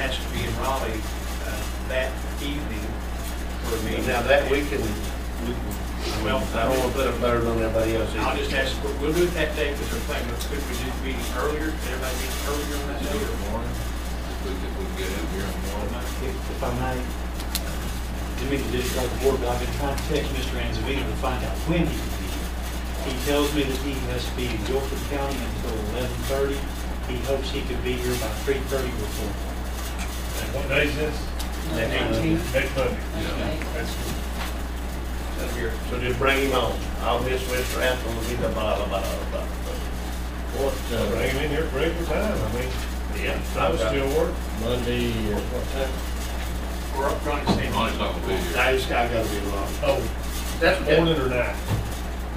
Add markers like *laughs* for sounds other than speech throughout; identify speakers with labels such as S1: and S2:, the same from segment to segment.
S1: has to be in Raleigh uh, that evening for a meeting.
S2: Now that we can, we can, well, I don't want to put it better than everybody else.
S1: I'll just ask, we'll- we'll do it that day because we're planning, but could we do the meeting earlier? Could everybody meet earlier on that day? or
S3: morning, if we could, we could get in here in the morning.
S4: If if I may, to make the district like board, but I've been trying to text Mr. Anzavino to find out when he can be here. He tells me that he has to be in Guilford County until eleven thirty. He hopes he could be here by three thirty or four. Uh,
S5: What day is this?
S1: Uh,
S5: Next Monday. That's-
S1: That'd be our-
S2: So just bring him on. I'll miss Mr. Apple, will be the bottle, bottle, bottle.
S5: What, uh, bring him in here, break the time, I mean,
S2: Yeah.
S5: I was still working.
S3: Monday, what time?
S1: We're up front and saying,
S3: Money's not gonna be here.
S2: I just, I gotta be along.
S5: Oh,
S2: That's
S5: morning or night?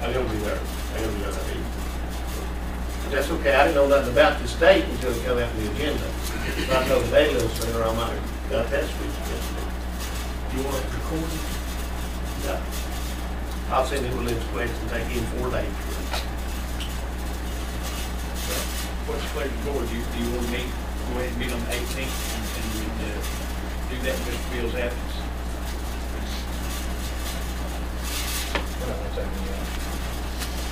S2: I gotta be there. I gotta be there that evening. But That's okay. I didn't know nothing about this date until it come out in the agenda. If I know today a little sooner, I might have got that switched.
S1: you want it recorded?
S2: No. I'll send him a list of questions, take him four days.
S1: What's the pleasure of the board? Do you, do you want to meet, go ahead and meet on the eighteenth and, and, uh, do that in Mr. Bill's absence?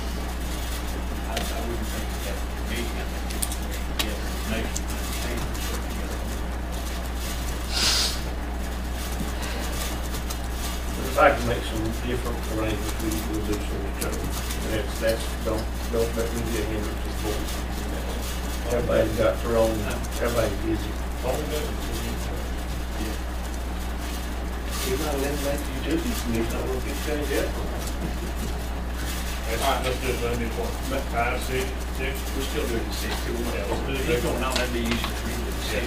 S1: I, I wouldn't think that would be, I think it's, yeah, maybe, maybe, something
S2: If I can make some different arrangements, we will do some return. And that's, that's, don't, don't let me get hindrance to board. Everybody's got their own, everybody's busy.
S5: Only day.
S2: You're not allowed to make your duties, and you're not gonna get changed yet.
S5: Let's let's do it Monday morning, five, six, six.
S1: else. We're still doing the six, too. We're
S5: Yeah,
S1: not- If he's
S5: let's do the six.
S1: going out, that'd be easier for me to do the six.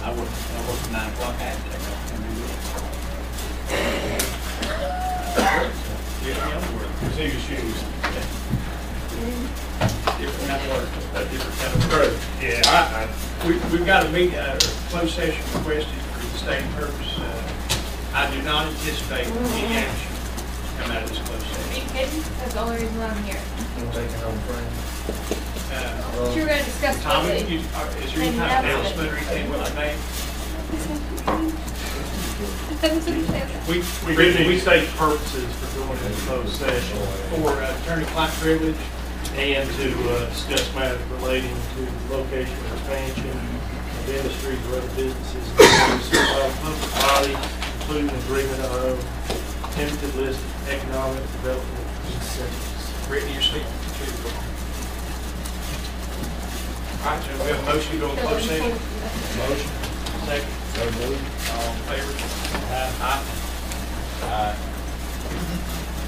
S1: I work, I work nine o'clock at, I go, can do that. Yeah, yeah, I'm working.
S5: See your shoes.
S1: Different kind of work, a different kind of work.
S5: Yeah, I,
S1: I- We, we've got a meet, uh, closed session requested for the same purpose. Uh, I do not anticipate any action come out of this closed
S6: Are
S1: session.
S6: you kidding? That's the only reason why I'm here.
S1: Uh,
S6: You were gonna discuss.
S1: Tommy,
S6: budget.
S1: you- are- is there any kind of announcement or anything that I made?
S6: *laughs* That's what he said.
S1: We, we, we state purposes for going into closed session for attorney-client privilege and to uh, discuss matters relating to location expansion of industries or other businesses in the public uh, body, including agreement of tentative list of economic development incentives. Brittany, you're speaking to the board. All right, so we have a motion to go into closed session. Motion. Second. All in favor? Aye. Aye.